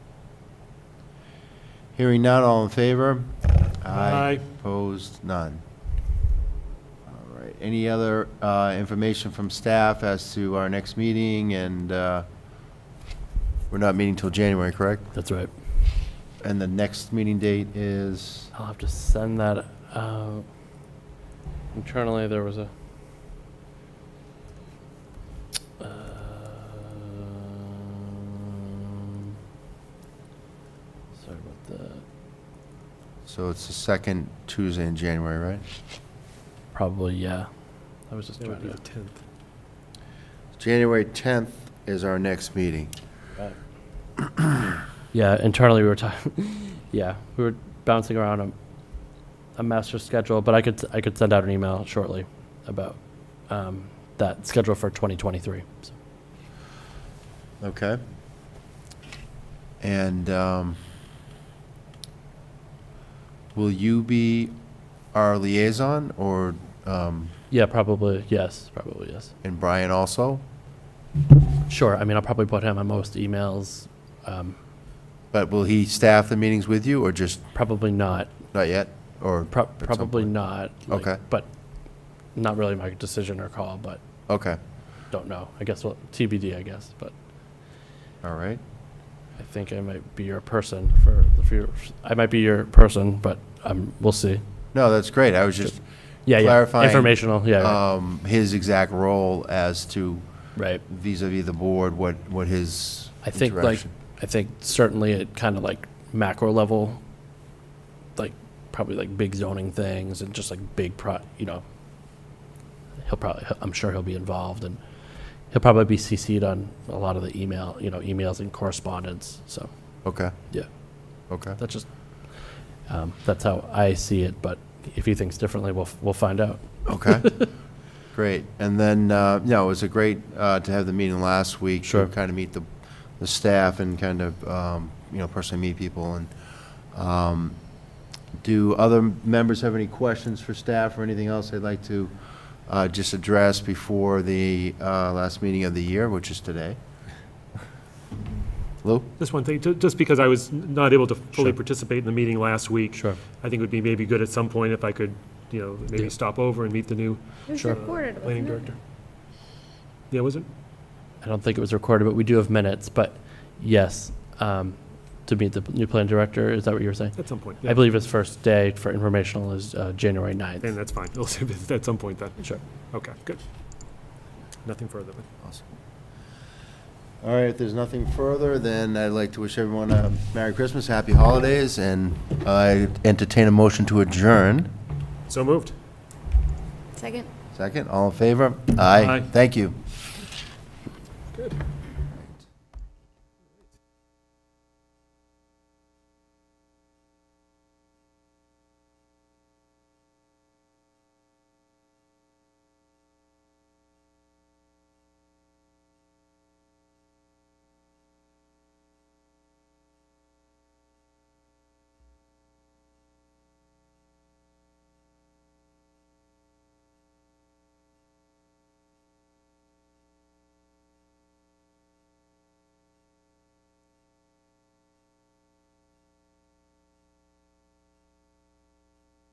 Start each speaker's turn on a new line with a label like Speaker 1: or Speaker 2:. Speaker 1: Hearing none, all in favor?
Speaker 2: Aye.
Speaker 1: Opposed, none. All right, any other uh, information from staff as to our next meeting, and uh, we're not meeting till January, correct?
Speaker 3: That's right.
Speaker 1: And the next meeting date is,
Speaker 3: I'll have to send that out. Internally, there was a. Um, Sorry about that.
Speaker 1: so it's the second Tuesday in January, right?
Speaker 3: Probably, yeah. I was just
Speaker 2: That would
Speaker 3: trying
Speaker 2: be the
Speaker 3: to.
Speaker 2: 10th.
Speaker 1: January 10th is our next meeting.
Speaker 3: Yeah, internally, we were talking, yeah, we were bouncing around a, a master schedule, but I could, I could send out an email shortly about, um, that schedule for 2023. So,
Speaker 1: Okay. And um, will you be our liaison, or, um,
Speaker 3: Yeah, probably, yes, probably, yes.
Speaker 1: and Brian also?
Speaker 3: Sure, I mean, I'll probably put him on most emails, um,
Speaker 1: But will he staff the meetings with you, or just
Speaker 3: probably not,
Speaker 1: not yet, or?
Speaker 3: prob-
Speaker 1: at some
Speaker 3: probably
Speaker 1: point?
Speaker 3: not. like,
Speaker 1: Okay.
Speaker 3: But not really my decision or call, but
Speaker 1: Okay,
Speaker 3: don't know. I guess, well, TBD, I guess, but
Speaker 1: all right.
Speaker 3: I think I might be your person for the few, I might be your person, but, um, we'll see.
Speaker 1: No, that's great. I was just
Speaker 3: Yeah, yeah.
Speaker 1: Clarifying,
Speaker 3: Informational, yeah, right,
Speaker 1: um, his exact role as to
Speaker 3: right.
Speaker 1: vis-à-vis the board, what, what his
Speaker 3: I think like
Speaker 1: interaction-
Speaker 3: I think certainly at kind of like macro level, like probably like big zoning things and just like big pro, you know. He'll probably I'm sure he'll be involved and he'll probably be CC'd on a lot of the email you know emails and correspondence. So
Speaker 1: Okay,
Speaker 3: yeah,
Speaker 1: okay.
Speaker 3: that's just um, that's how I see it. But if he thinks differently, we'll f- we'll find out.
Speaker 1: Okay, great. And then, uh, no, it was a great, uh, to have the meeting last week.
Speaker 3: Sure.
Speaker 1: Kind of meet the, the staff and kind of, um, you know, personally meet people and, um, do other members have any questions for staff or anything else they'd like to, uh, just address before the, uh, last meeting of the year, which is today? Lou?
Speaker 2: Just one thing, ju- just because I was n- not able to fully
Speaker 3: Sure.
Speaker 2: participate in the meeting last week.
Speaker 3: Sure.
Speaker 2: I think it would be maybe good at some point if I could, you know, maybe
Speaker 3: Yeah.
Speaker 2: stop over and meet the new
Speaker 4: It was
Speaker 3: Sure.
Speaker 4: recorded, wasn't
Speaker 2: planning
Speaker 4: it?
Speaker 2: director. Yeah, was it?
Speaker 3: I don't think it was recorded, but we do have minutes. But yes, um, to meet the new plan director, is that what you were saying?
Speaker 2: At some point.
Speaker 3: I believe his first day for informational is uh, January 9th.
Speaker 2: And that's fine. We'll see if it's At some point then.
Speaker 3: Sure.
Speaker 2: Okay, good. Nothing further. then.
Speaker 1: Awesome. All right, if there's nothing further, then I'd like to wish everyone a Merry Christmas, Happy Holidays, and I entertain a motion to adjourn.
Speaker 2: So moved.
Speaker 4: Second.
Speaker 1: Second, all in favor? Aye.
Speaker 2: Aye.
Speaker 1: Thank you.
Speaker 2: Good.